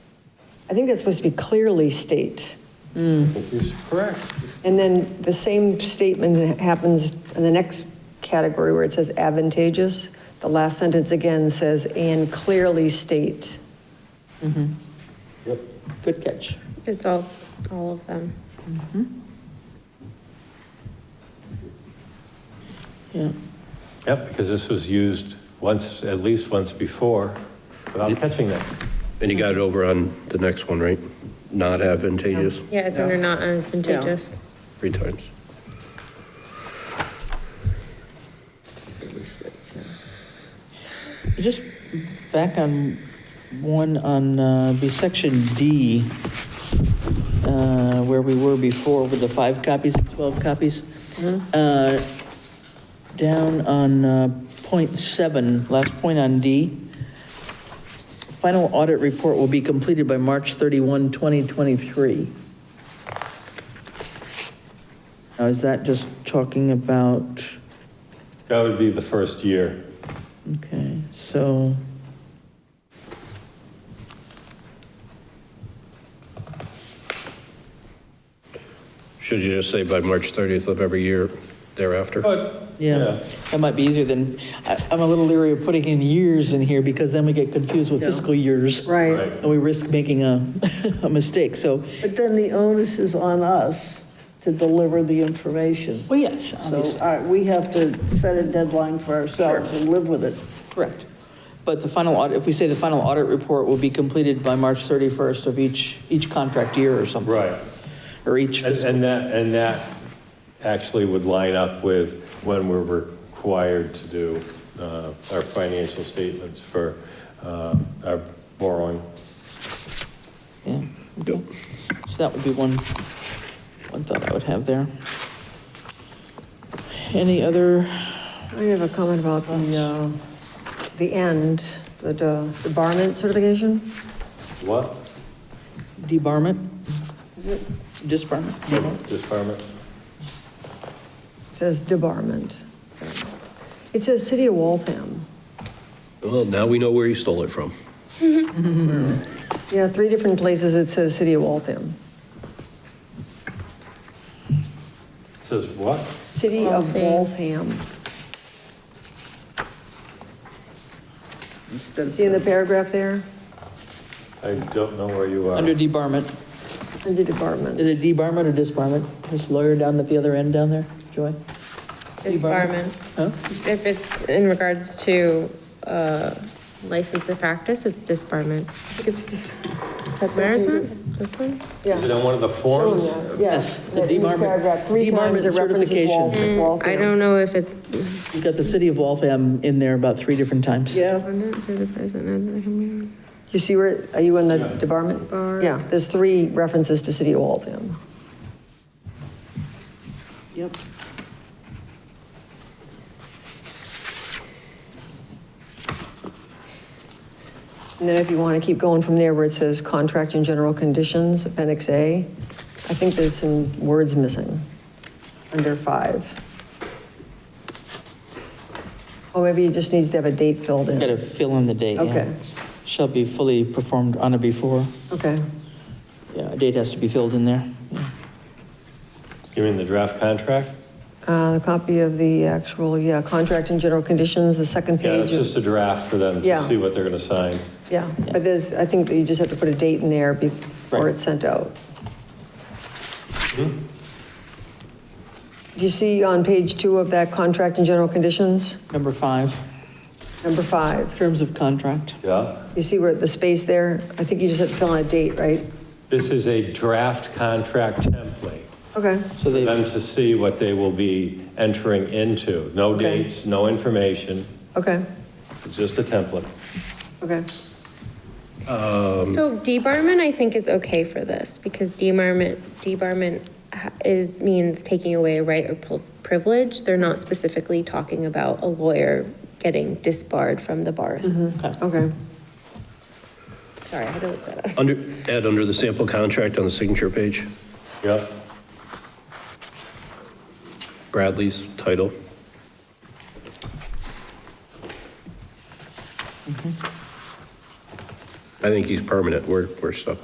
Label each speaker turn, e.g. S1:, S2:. S1: I think that's supposed to be clearly state.
S2: Which is correct.
S1: And then the same statement happens in the next category where it says advantageous. The last sentence again says, and clearly state.
S2: Yep.
S3: Good catch.
S4: It's all, all of them.
S3: Yeah.
S5: Yep, because this was used once, at least once before, without catching that.
S6: And you got it over on the next one, right? Not advantageous,
S4: Yeah, it's under not advantageous.
S6: three times.
S3: Just back on one on, uh, be section D, uh, where we were before with the five copies and 12 copies. Uh, Down on uh, point seven, last point on D. Final audit report will be completed by March 31, 2023. Now, is that just talking about,
S5: That would be the first year.
S3: okay, so.
S6: Should you just say by March 30th of every year thereafter?
S5: But,
S3: Yeah, that might be easier than, I- I'm a little leery of putting in years in here because then we get confused with fiscal years.
S1: Right.
S3: And we risk making a, a mistake, so,
S7: But then the onus is on us to deliver the information.
S3: well, yes,
S7: So
S3: obviously,
S7: all right, we have to set a deadline for ourselves and live with it.
S3: correct. But the final audit, if we say the final audit report will be completed by March 31st of each, each contract year or something.
S5: right.
S3: Or each
S5: And
S3: fiscal,
S5: and that, and that actually would line up with when we're required to do uh, our financial statements for uh, our borrowing.
S3: yeah, okay. So that would be one, one thought I would have there. Any other,
S1: I have a comment about the, uh, the end, the the barment certification.
S5: What?
S3: debarment? Is it? Disbarment?
S5: Disbarment?
S1: It says debarment. It says City of Waltham.
S6: Well, now we know where you stole it from.
S1: Yeah, three different places it says City of Waltham.
S5: Says what?
S1: City of
S4: Waltham.
S1: Waltham.
S7: Instead of-
S1: See in the paragraph there,
S5: I don't know where you are.
S3: Under debarment.
S1: under department.
S3: Is it debarment or disbarment? This lawyer down at the other end down there, Joy? Debarment.
S4: Disbarment.
S3: Huh?
S4: If it's in regards to uh, license of practice, it's disbarment.
S1: It's this.
S4: Where is it? This one?
S5: Is it on one of the
S1: Oh,
S5: forms?
S3: Yes, the
S1: In each
S3: debarment-
S1: paragraph, three times it references
S3: debarment
S1: Wal-
S3: certification.
S1: Waltham.
S4: Mm, I don't know if it,
S3: You've got the city of Waltham in there about three different times.
S7: Yeah,
S4: abundance or the present of the community.
S1: You see where, are you on the debarment?
S4: Bar.
S1: Yeah, there's three references to City of Waltham.
S7: yep.
S1: And then if you want to keep going from there where it says contract and general conditions, appendix A, I think there's some words missing under five. Or Oh, maybe it just needs to have a date filled
S3: Got to
S1: in.
S3: fill in the date, yeah.
S1: Okay.
S3: Shall be fully performed on or before.
S1: Okay.
S3: Yeah, a date has to be filled in there. Yeah.
S5: You mean the draft contract?
S1: Uh, A copy of the actual, yeah, contract and general conditions, the second
S5: Yeah, it's
S1: page. of-
S5: just a draft for them to
S1: Yeah.
S5: see what they're going to sign.
S1: Yeah, but there's, I think that you just have to put a date in there before
S3: Right.
S1: it's sent out. Hmm? Do you see on page two of that contract and general conditions,
S3: Number five,
S1: number five?
S3: terms of contract.
S5: Yeah?
S1: You see where the space there? I think you just have to fill in a date, right?
S5: This is a draft contract template
S1: Okay,
S3: So
S5: for
S3: they,
S5: them to see what they will be entering into. No
S1: Okay.
S5: dates, no information,
S1: okay,
S5: it's just a template.
S1: okay.
S4: So debarment, I think, is okay for this, because debarment, debarment ha- is, means taking away a right or pri- privilege. They're not specifically talking about a lawyer getting disbarred from the bars.
S1: Okay.
S4: Sorry, I had to look that up.
S6: Under, add under the sample contract on the signature page,
S5: Yep,
S6: Bradley's title. I think he's permanent. We're, we're stuck